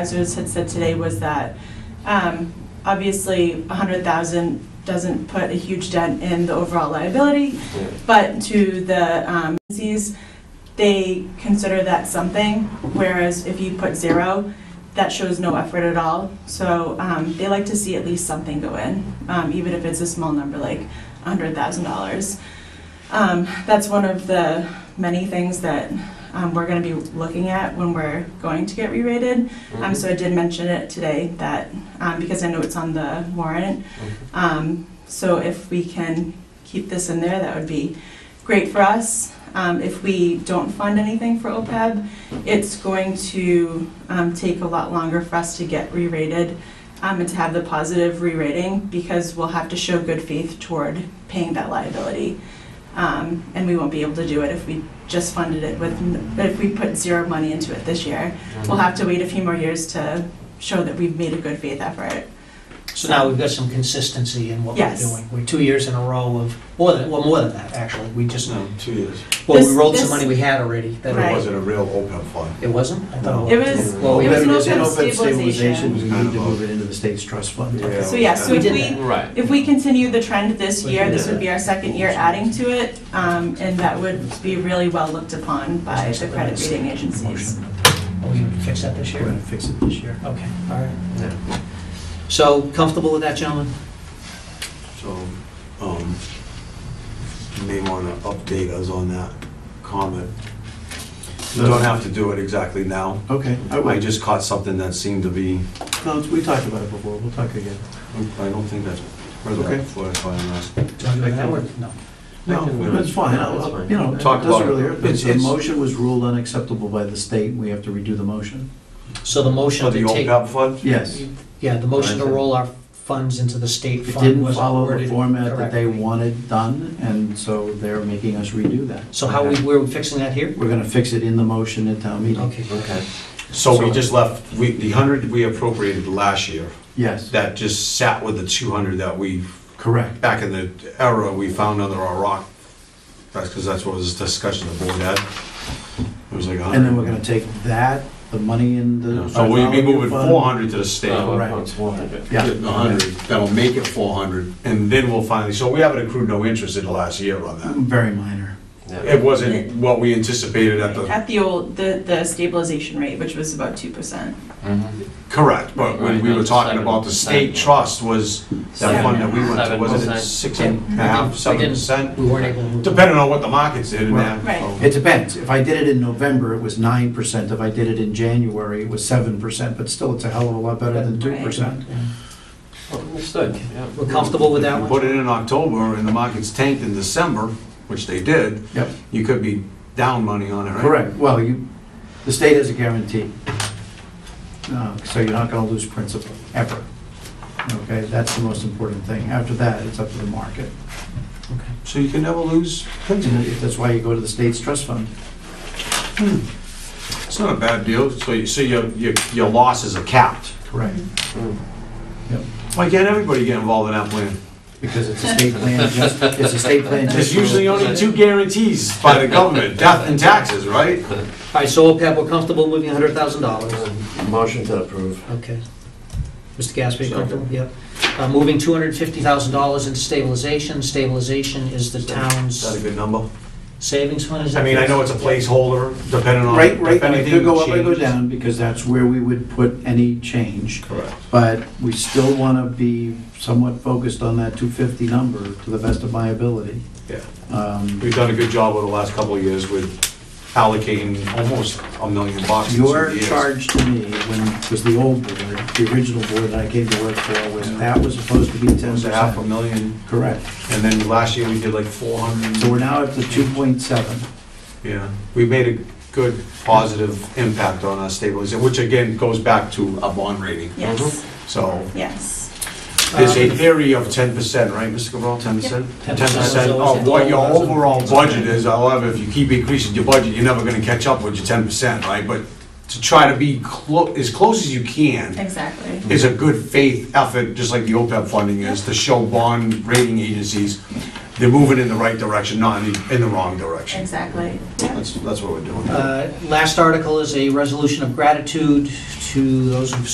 supervisors had said today was that, um, obviously, a hundred thousand doesn't put a huge dent in the overall liability, Yeah. but to the, um, agencies, they consider that something, whereas if you put zero, that shows no effort at all. So, um, they like to see at least something go in, um, even if it's a small number, like a hundred thousand dollars. Um, that's one of the many things that, um, we're gonna be looking at when we're going to get re-rated. Um, so I did mention it today that, um, because I know it's on the warrant, um, so if we can keep this in there, that would be great for us. Um, if we don't fund anything for OPEB, it's going to, um, take a lot longer for us to get re-rated, um, and to have the positive re-rating, because we'll have to show good faith toward paying that liability. Um, and we won't be able to do it if we just funded it with, n- if we put zero money into it this year. We'll have to wait a few more years to show that we've made a good faith effort. So now we've got some consistency in what we're Um, Yes. doing. We're two years in a row of, more than, well, more than that, actually. We just, No, two years. well, we This- rolled some this- money we had already. that- Right. It wasn't a real OPEB fund. It wasn't? I thought It was, Well, it was if an it's in open stabilization. We need to move it into the state's trust fund. Yeah. So yeah, so We if did we, that. Right. if we continue the trend this We year, did this that. would be our second year adding to it, um, and that would be really well looked upon by the credit rating agencies. Are Oh, we gonna fix that this We're year? gonna fix it this year. Okay, all right. So comfortable with that, gentlemen? So, um, you may want to update us on that comment. You don't have to do it exactly now. Okay, I I would. just caught something that seemed to be, No, we talked about it before, we'll talk again. I don't think that's, where's that Okay. before I Do you I want to do that think- or no? No, that's fine, I'll- That's I'll- fine. you know, it Talk about doesn't it. really hurt. It's- The it's- motion was ruled unacceptable by the state, we have to redo the motion? So the For motion the to take, OPEB fund? Yes. yeah, the motion to Right. roll our funds into the state It fund didn't was follow the worded format that they correctly. wanted done, and so they're making us redo that. So how we, we're fixing that here? We're gonna fix it in the motion at town meeting. Okay. Okay. So we just left, we, the hundred we appropriated last year, Yes, that just sat with the two hundred that we, correct. back in the era, we found under our rock. That's because that's what was discussion the board had. It was like a hundred. And then we're gonna take that, the money in the. So we be moving fund. four hundred to the state, No, Right. it's 100. Yeah. hundred, that'll make it four hundred, and then we'll finally, so we haven't accrued no interest in the last year on that. Very minor. Yeah. It wasn't what we anticipated at the, At the old, the, the stabilization rate, which was about two percent. Mm-hmm. correct, but when we were talking about the state trust was, that fund that we went to, wasn't it six and a half, seven percent? We weren't able to. move- Depending on what the markets did and that. Right. so- It depends. If I did it in November, it was nine percent. If I did it in January, it was seven percent, but still, it's a hell of a lot better than two Right. percent. Understood, yeah. We're comfortable with that If you one? Put it in October and the markets tanked in December, which they did, Yep, you could be down money on it, right? correct. Well, you, the state has a guarantee. Uh, So you're not gonna lose principal, ever. Okay, that's the most important thing. After that, it's up to the market. So you can never lose And principal. That's why you go to the state's trust fund. It's not a bad deal, so you, so your, your, your losses are capped. Correct. Why can't everybody get involved in that plan? Because it's a state plan, just, it's a state plan. just- There's usually only two guarantees by the government, death and taxes, right? All right, so OPEB, we're comfortable moving hundred thousand dollars. Motion to approve. Okay. Mr. Gasper, you Second. comfortable? Yep. Uh, Moving two hundred fifty thousand dollars into stabilization. Stabilization is the Is that a town's good number? savings fund, is it? I mean, I know it's a placeholder, depending on Right, if right, it could anything go up or go changes. down, because that's where we would put any change. Correct. But we still want to be somewhat focused on that 250 number to the best of my ability. Yeah. Um, We've done a good job over the last couple of years with allocating almost a million bucks. in two Your years. charge to me, when, was the old board, the original board that I came to work for, was that was supposed to be It was a half a 10%. million, Correct. and then last year we did like four hundred. So we're now up to 2.7. Yeah, we made a good, positive impact on our stabilization, which again goes back to a bond rating. Yes, So yes. Uh, there's a theory of ten percent, right, Mr. Cabral, ten percent? Uh, Ten 10% percent is always of what your the goal. overall budget is, however, if you keep increasing your budget, you're never gonna catch up with your ten percent, right? But to try to be clo, as close as you can Exactly. is E a good faith effort, just like the OPEB funding is, to show bond rating agencies, they're moving in the right direction, not in the, in the wrong direction. Exactly. Yeah. That's, that's what we're doing. Uh, Last article is a resolution of gratitude to those who've